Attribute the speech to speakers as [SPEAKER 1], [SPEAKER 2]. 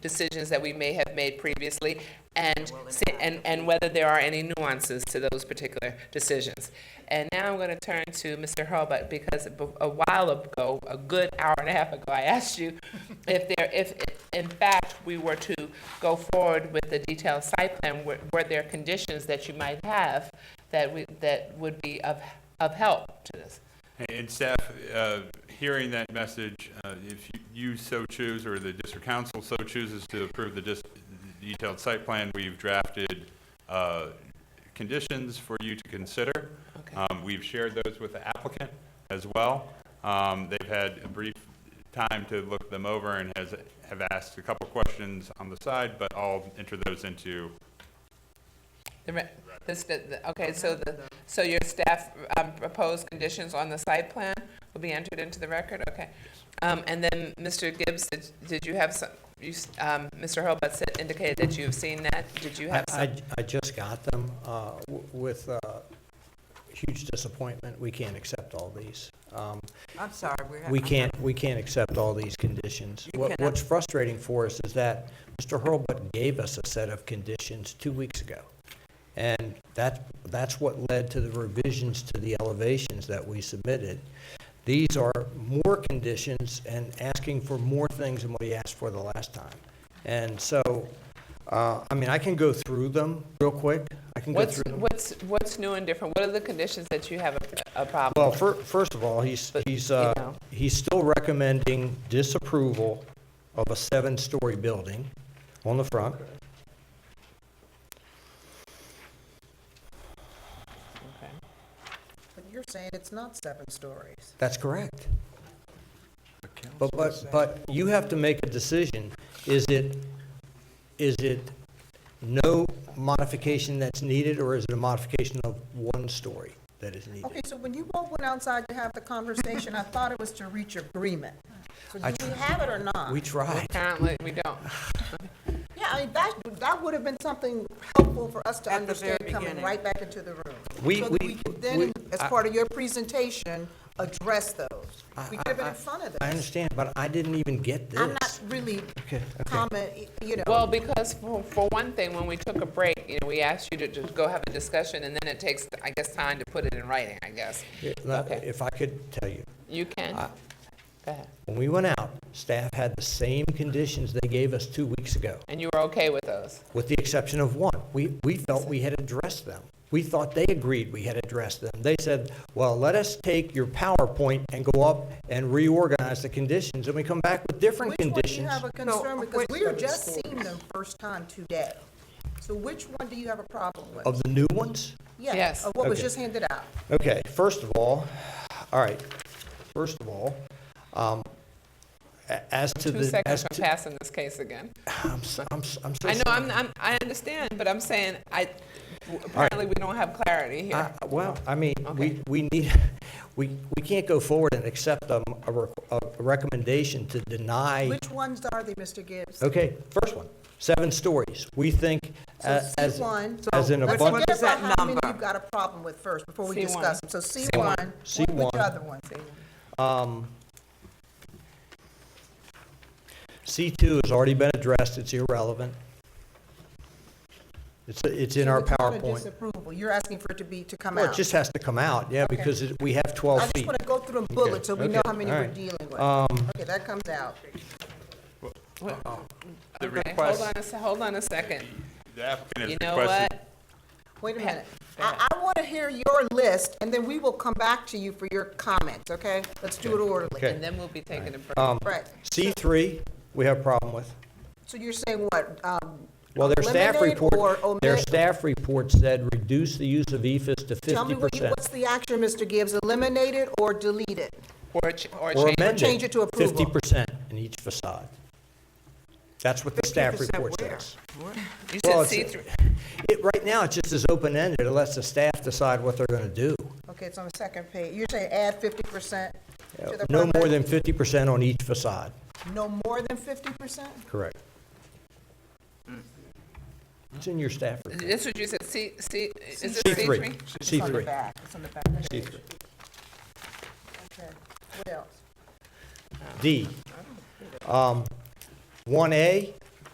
[SPEAKER 1] decisions that we may have made previously, and, see- and, and whether there are any nuances to those particular decisions. And now I'm going to turn to Mr. Hurlbut, because a a while ago, a good hour and a half ago, I asked you if there, if, in fact, we were to go forward with the detailed site plan, were, were there conditions that you might have that we, that would be of, of help to this?
[SPEAKER 2] And staff, uh, hearing that message, uh, if you- you so choose, or the district council so chooses to approve the dis- detailed site plan, we've drafted uh, conditions for you to consider.
[SPEAKER 1] Okay.
[SPEAKER 2] Um, We've shared those with the applicant as well. Um, They've had a brief time to look them over and has, have asked a couple questions on the side, but I'll enter those into,
[SPEAKER 1] The re- this- the- the- okay, so the, so your staff um, proposed conditions on the site plan will be entered into the record, okay? Um, and then, Mr. Gibbs, did, did you have some, you, s- um, Mr. Hurlbut said, indicated that you've seen that, did you have
[SPEAKER 3] I,
[SPEAKER 1] some?
[SPEAKER 3] I just got them uh, w- with uh, huge disappointment. We can't accept all these. Um,
[SPEAKER 4] I'm sorry, we're.
[SPEAKER 3] We
[SPEAKER 4] I'm
[SPEAKER 3] can't, we can't accept all these conditions.
[SPEAKER 4] You
[SPEAKER 3] What-
[SPEAKER 4] cannot.
[SPEAKER 3] What's frustrating for us is that Mr. Hurlbut gave us a set of conditions two weeks ago. And that, that's what led to the revisions to the elevations that we submitted. These are more conditions and asking for more things than what he asked for the last time. And so, uh, I mean, I can go through them real quick. I can go
[SPEAKER 1] What's,
[SPEAKER 3] through them.
[SPEAKER 1] what's, what's new and different? What are the conditions that you have a, a problem
[SPEAKER 3] Well,
[SPEAKER 1] with?
[SPEAKER 3] fir- first of all, he's,
[SPEAKER 1] But,
[SPEAKER 3] he's,
[SPEAKER 1] you
[SPEAKER 3] uh,
[SPEAKER 1] know.
[SPEAKER 3] he's still recommending disapproval of a seven-story building on the front.
[SPEAKER 1] Okay.
[SPEAKER 5] But you're saying it's not seven stories.
[SPEAKER 3] That's correct. But, but, but you have to make a decision. Is it, is it no modification that's needed, or is it a modification of one story that is needed?
[SPEAKER 5] Okay, so when you both went outside to have the conversation, I thought it was to reach agreement. So
[SPEAKER 3] I
[SPEAKER 5] do we have it or not?
[SPEAKER 3] We tried.
[SPEAKER 1] Apparently, we don't.
[SPEAKER 5] Yeah, I mean, that, that would have been something helpful for us to
[SPEAKER 4] At the very
[SPEAKER 5] understand coming
[SPEAKER 4] beginning.
[SPEAKER 5] right back into the room.
[SPEAKER 3] We-
[SPEAKER 5] So that
[SPEAKER 3] we-
[SPEAKER 5] we could then,
[SPEAKER 3] we-
[SPEAKER 5] as
[SPEAKER 3] I-
[SPEAKER 5] part of your presentation, address those. We could have been
[SPEAKER 3] I-
[SPEAKER 5] in front of this.
[SPEAKER 3] I understand, but I didn't even get this.
[SPEAKER 5] I'm not really
[SPEAKER 3] Okay, okay.
[SPEAKER 5] comment, you know.
[SPEAKER 1] Well, because for, for one thing, when we took a break, you know, we asked you to just go have a discussion, and then it takes, I guess, time to put it in writing, I guess. okay.
[SPEAKER 3] If I could tell you,
[SPEAKER 1] You can?
[SPEAKER 3] I-
[SPEAKER 1] Go ahead.
[SPEAKER 3] when we went out, staff had the same conditions they gave us two weeks ago.
[SPEAKER 1] And you were okay with those?
[SPEAKER 3] with the exception of one. We, we felt we had addressed them. We thought they agreed we had addressed them. They said, well, let us take your PowerPoint and go up and reorganize the conditions, and we come back with different
[SPEAKER 5] Which one do you
[SPEAKER 3] conditions.
[SPEAKER 5] have a concern, because
[SPEAKER 4] which
[SPEAKER 5] we are
[SPEAKER 4] of the
[SPEAKER 5] just
[SPEAKER 4] stories?
[SPEAKER 5] seeing them first time today. So which one do you have a problem with?
[SPEAKER 3] Of the new ones?
[SPEAKER 5] Yeah,
[SPEAKER 1] Yes.
[SPEAKER 5] Of what was
[SPEAKER 3] Okay.
[SPEAKER 5] just handed out.
[SPEAKER 3] Okay, first of all, all right, first of all, um, a- as to
[SPEAKER 1] Two
[SPEAKER 3] the,
[SPEAKER 1] seconds
[SPEAKER 3] as
[SPEAKER 1] from
[SPEAKER 3] to,
[SPEAKER 1] passing this case again.
[SPEAKER 3] I'm, so- I'm, so- I'm so
[SPEAKER 1] I know,
[SPEAKER 3] sorry.
[SPEAKER 1] I'm, I'm, I understand, but I'm saying, I, apparently, we don't have clarity here.
[SPEAKER 3] I- Well, I mean,
[SPEAKER 1] Okay.
[SPEAKER 3] we, we need, we, we can't go forward and accept um, a, rec- a recommendation to deny
[SPEAKER 5] Which ones are they, Mr. Gibbs?
[SPEAKER 3] Okay, first one, seven stories. We think
[SPEAKER 5] So
[SPEAKER 3] a- as,
[SPEAKER 5] C1.
[SPEAKER 3] as in
[SPEAKER 4] So
[SPEAKER 5] Let's
[SPEAKER 4] what
[SPEAKER 3] abundance,
[SPEAKER 5] identify
[SPEAKER 4] is that
[SPEAKER 5] how many
[SPEAKER 4] number?
[SPEAKER 5] you've got a problem with first, before we
[SPEAKER 1] C1.
[SPEAKER 5] discuss them. So C1,
[SPEAKER 3] C1.
[SPEAKER 5] which other ones?
[SPEAKER 3] um, C2 has already been addressed, it's irrelevant. It's, it's in our
[SPEAKER 5] So it's not a
[SPEAKER 3] PowerPoint.
[SPEAKER 5] disapproval, you're asking for it to be, to come
[SPEAKER 3] Well, it
[SPEAKER 5] out.
[SPEAKER 3] just has to come out, yeah, because it- we have 12
[SPEAKER 5] I
[SPEAKER 3] feet.
[SPEAKER 5] just want to go through them bullets, so we
[SPEAKER 3] okay,
[SPEAKER 5] know how many
[SPEAKER 3] all
[SPEAKER 5] we're
[SPEAKER 3] right.
[SPEAKER 5] dealing with.
[SPEAKER 3] Um,
[SPEAKER 5] Okay, that comes out.
[SPEAKER 2] the
[SPEAKER 1] Okay,
[SPEAKER 2] request,
[SPEAKER 1] hold on a, se- hold on a second.
[SPEAKER 2] the applicant
[SPEAKER 1] You
[SPEAKER 2] has
[SPEAKER 1] know
[SPEAKER 2] requested
[SPEAKER 1] what?
[SPEAKER 5] Wait a
[SPEAKER 1] Pat,
[SPEAKER 5] minute.
[SPEAKER 1] go
[SPEAKER 5] I, I want to hear your list, and then we will come back to you for your comments, okay? Let's do it orderly.
[SPEAKER 3] Okay. Um,
[SPEAKER 1] And then we'll be taking a break.
[SPEAKER 5] Right.
[SPEAKER 3] C3, we have a problem with.
[SPEAKER 5] So you're saying what? um,
[SPEAKER 3] Well, their staff
[SPEAKER 5] eliminate or
[SPEAKER 3] report, their
[SPEAKER 5] omit?
[SPEAKER 3] staff report said reduce the use of E EFS to
[SPEAKER 5] Tell me, what you-
[SPEAKER 3] 50%.
[SPEAKER 5] what's the action, Mr. Gibbs? Eliminate it or delete it?
[SPEAKER 1] Or, ch- or
[SPEAKER 3] Or
[SPEAKER 1] change.
[SPEAKER 3] amend it.
[SPEAKER 5] change it to approval.
[SPEAKER 3] Fifty percent in each facade. That's what the staff
[SPEAKER 4] 50%
[SPEAKER 3] report
[SPEAKER 4] where?
[SPEAKER 3] says.
[SPEAKER 1] You said
[SPEAKER 3] Well, it's-
[SPEAKER 1] C three.
[SPEAKER 3] It, right now, it just is open-ended, it lets the staff decide what they're gonna do.
[SPEAKER 5] Okay, it's on the second page. You're saying add fifty percent to the.
[SPEAKER 3] No more
[SPEAKER 5] property?
[SPEAKER 3] than fifty percent on each facade.
[SPEAKER 5] No more than fifty percent?
[SPEAKER 3] Correct. It's in your staff report.
[SPEAKER 1] That's what you said, C, C, is it
[SPEAKER 3] C
[SPEAKER 1] C three?
[SPEAKER 3] three, C
[SPEAKER 5] It's on the
[SPEAKER 3] three,
[SPEAKER 5] back, it's on the back. of the
[SPEAKER 3] C
[SPEAKER 5] page.
[SPEAKER 3] three.
[SPEAKER 5] Okay. What else?
[SPEAKER 3] D. Um, one A,